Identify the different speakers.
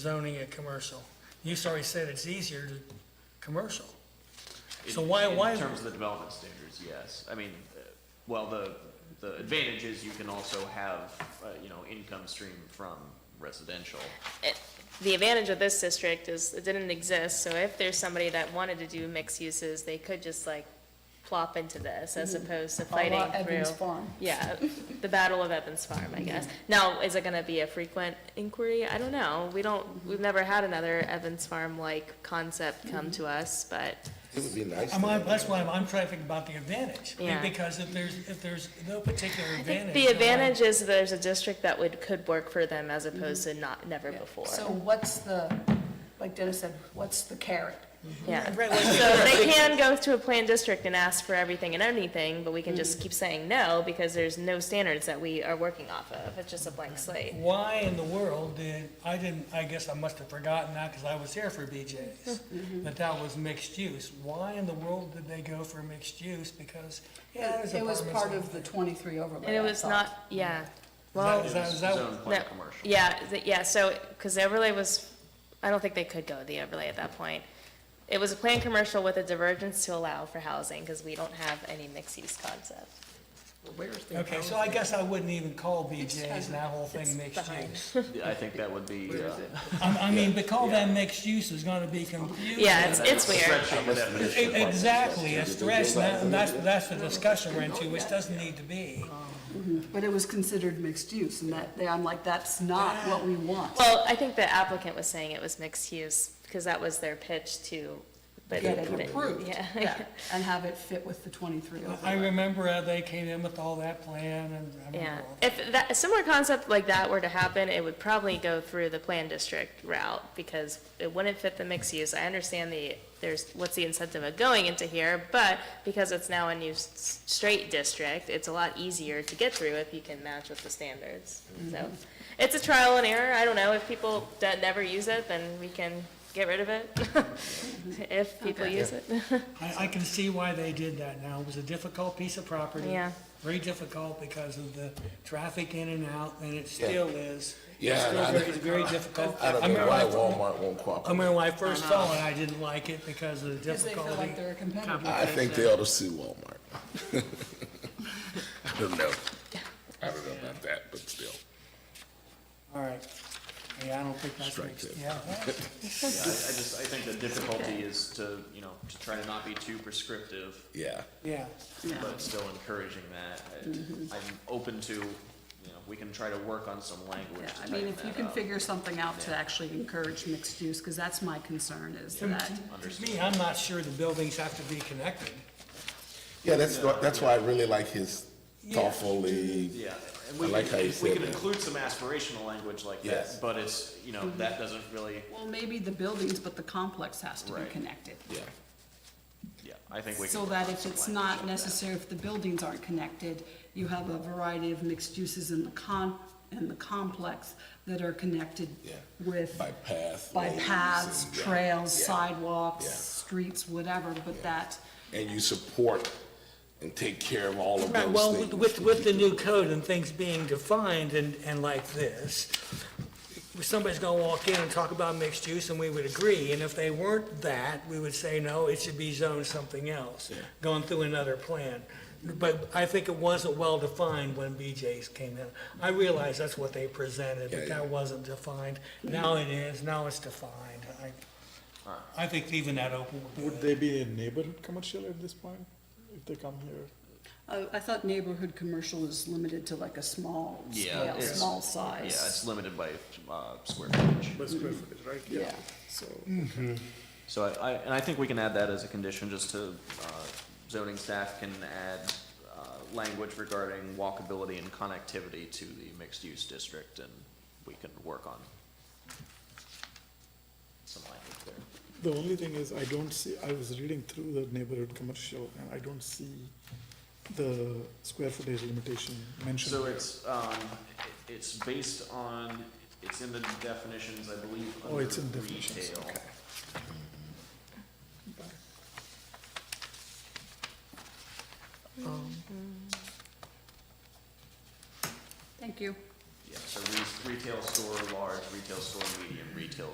Speaker 1: zoning a commercial. You already said it's easier to commercial. So why-
Speaker 2: In-
Speaker 1: why-
Speaker 2: In terms of the development standards, yes. I mean, uh, well, the, the advantage is you can also have, uh, you know, income stream from residential.
Speaker 3: it- the advantage of this district is it didn't exist, so if there's somebody that wanted to do mixed uses, they could just like plop into this as opposed to
Speaker 4: Mm-hmm. A
Speaker 3: fighting
Speaker 4: la Evans
Speaker 3: through.
Speaker 4: Farm. Mm-hmm.
Speaker 3: Yeah, the Battle of Evans Farm, I guess. Now, is it gonna be a frequent inquiry? I don't know. We
Speaker 4: Mm-hmm.
Speaker 3: don't, we've never had another Evans Farm-like concept come
Speaker 4: Mm-hmm.
Speaker 3: to us, but
Speaker 5: It would be nice.
Speaker 1: I'm,
Speaker 5: to
Speaker 1: I'm-
Speaker 5: have
Speaker 1: that's why I'm, I'm trying to think about the advantage.
Speaker 3: Yeah.
Speaker 1: Because if there's, if there's no particular
Speaker 3: I
Speaker 1: advantage.
Speaker 3: think the
Speaker 1: then why-
Speaker 3: advantage is there's a district that would, could work for them as opposed to not, never before.
Speaker 4: Mm-hmm. So what's the, like Dennis said, what's the carrot?
Speaker 3: Yeah.
Speaker 1: Right, like-
Speaker 3: So they can go to a planned district and ask for everything and anything, but we can just keep saying no because there's no standards that we are working off of. It's just a blank slate.
Speaker 1: Why in the world did, I didn't, I guess I must have forgotten that because I was here for BJ's,
Speaker 3: Mm-hmm.
Speaker 1: that that was mixed use. Why in the world did they go for mixed use? Because, yeah, there's
Speaker 4: It was
Speaker 1: apartments.
Speaker 4: part of the 23 overlay.
Speaker 3: And it
Speaker 4: I
Speaker 3: was
Speaker 4: thought.
Speaker 3: not, yeah,
Speaker 1: Well-
Speaker 3: well,
Speaker 1: Is that- is that-
Speaker 2: Zone
Speaker 3: no,
Speaker 2: plan commercial.
Speaker 3: yeah, th- yeah, so, because the overlay was, I don't think they could go with the overlay at that point. It was a planned commercial with a divergence to allow for housing because we don't have any mixed use concept.
Speaker 1: Okay, so I guess I wouldn't even call BJ's and that whole
Speaker 3: It's
Speaker 1: thing mixed
Speaker 3: behind.
Speaker 1: use.
Speaker 2: I think that would be, uh.
Speaker 1: I, I mean, because call that mixed use is gonna be confusing.
Speaker 3: Yeah, it's, it's weird.
Speaker 2: Stretching the definition. of
Speaker 1: E-
Speaker 2: what is
Speaker 1: Exactly, a
Speaker 2: residential.
Speaker 1: stretch, that- and that's, that's the discussion we're into, which doesn't need to be.
Speaker 4: But it was considered mixed use, and that, I'm like, that's not
Speaker 1: Ah.
Speaker 4: what we want.
Speaker 3: Well, I think the applicant was saying it was mixed use, because that was their pitch to, but.
Speaker 4: Get it
Speaker 3: but-
Speaker 4: approved.
Speaker 3: Yeah.
Speaker 4: And have it fit with the 23
Speaker 1: I
Speaker 5: Uh-huh.
Speaker 4: overlay.
Speaker 1: remember uh, they came in with all that plan and I
Speaker 3: Yeah,
Speaker 1: remember all that.
Speaker 3: if that, a similar concept like that were to happen, it would probably go through the plan district route, because it wouldn't fit the mixed use. I understand the, there's, what's the incentive of going into here, but because it's now a new s- straight district, it's a lot easier to get through if you can match with the standards, so. It's a trial and error, I don't know, if people that never use it, then we can get rid of it, if people use it.
Speaker 1: I, I can see why they did that now. It was a difficult piece of property.
Speaker 3: Yeah.
Speaker 1: Very difficult because of the traffic in and out, and it still is.
Speaker 5: Yeah,
Speaker 1: It's
Speaker 5: and I
Speaker 1: still very,
Speaker 5: don't-
Speaker 1: very difficult.
Speaker 5: I don't know
Speaker 1: remember
Speaker 5: why
Speaker 1: when I fir-
Speaker 5: Walmart won't
Speaker 1: I
Speaker 5: cooperate.
Speaker 1: remember when I first saw it, I didn't like it because of the
Speaker 4: Because they
Speaker 1: difficulty.
Speaker 4: feel like they're a competitor.
Speaker 5: I think they ought to sue Walmart. I don't know. I don't know about that, but still.
Speaker 1: All right. Yeah, I don't think that's
Speaker 5: Strike
Speaker 1: mixed,
Speaker 5: that.
Speaker 1: yeah.
Speaker 2: Yeah, I I just, I think the difficulty is to, you know, to try to not be too prescriptive,
Speaker 5: Yeah.
Speaker 1: Yeah.
Speaker 2: but still encouraging that. I-
Speaker 4: Mm-hmm.
Speaker 2: I'm open to, you know, we can try to work on some language
Speaker 4: Yeah,
Speaker 2: to
Speaker 4: I
Speaker 2: tighten that
Speaker 4: mean, if you can
Speaker 2: up.
Speaker 4: figure something out to actually encourage mixed use, because that's my concern, is
Speaker 1: To
Speaker 4: that,
Speaker 1: to me, I'm not sure the buildings have to be connected.
Speaker 5: Yeah, that's, wh- that's why I really like his thoughtfully,
Speaker 2: Yeah, and we
Speaker 5: I like
Speaker 2: can,
Speaker 5: how you
Speaker 2: we
Speaker 5: said
Speaker 2: can
Speaker 5: that.
Speaker 2: include some aspirational language like
Speaker 5: Yes.
Speaker 2: that, but it's, you know, that doesn't really,
Speaker 4: well, maybe the buildings, but the complex has to be
Speaker 2: Right.
Speaker 4: connected.
Speaker 5: yeah,
Speaker 2: yeah, I think we can.
Speaker 4: So that if it's not necessary, if the buildings aren't connected, you have a variety of mixed uses in the con, in the complex that are connected
Speaker 5: Yeah.
Speaker 4: with,
Speaker 5: by path.
Speaker 4: by
Speaker 5: roads
Speaker 4: paths,
Speaker 5: and- yeah,
Speaker 4: trails,
Speaker 5: yeah.
Speaker 4: sidewalks,
Speaker 5: Yeah.
Speaker 4: streets, whatever, but that,
Speaker 5: And you support and take care of all of
Speaker 1: Right,
Speaker 5: those
Speaker 1: well, with-
Speaker 5: things.
Speaker 1: with, with the new code and things being defined and, and like this, somebody's gonna walk in and talk about mixed use, and we would agree, and if they weren't that, we would say, no, it should be zoned something else, going through another plan. But I think it wasn't well-defined when BJ's came in. I realize that's what they presented,
Speaker 5: Yeah,
Speaker 1: but
Speaker 5: yeah.
Speaker 1: that wasn't defined. Now it is, now it's defined. I, I think leaving that open would be.
Speaker 6: Would they be a neighborhood commercial at this point, if they come here?
Speaker 4: uh, I, I thought neighborhood commercial is limited to like a small
Speaker 2: Yeah,
Speaker 4: scale,
Speaker 2: it's-
Speaker 4: small
Speaker 2: Yeah, it's
Speaker 4: size.
Speaker 2: limited by, uh, square footage.
Speaker 6: right?
Speaker 4: Yeah, so,
Speaker 2: So I, I, and I think we can add that as a condition, just to, uh, zoning staff can add, uh, language regarding walkability and connectivity to the mixed-use district, and we can work on some language there.
Speaker 6: The only thing is, I don't see, I was reading through the neighborhood commercial, and I don't see the square footage limitation mentioned.
Speaker 2: So it's, um, it- it's based on, it's in the definitions, I believe,
Speaker 6: Oh, it's in
Speaker 2: under
Speaker 6: definitions,
Speaker 2: retail.
Speaker 6: okay.
Speaker 4: thank you.
Speaker 2: Yeah, so re- retail store large, retail store medium, retail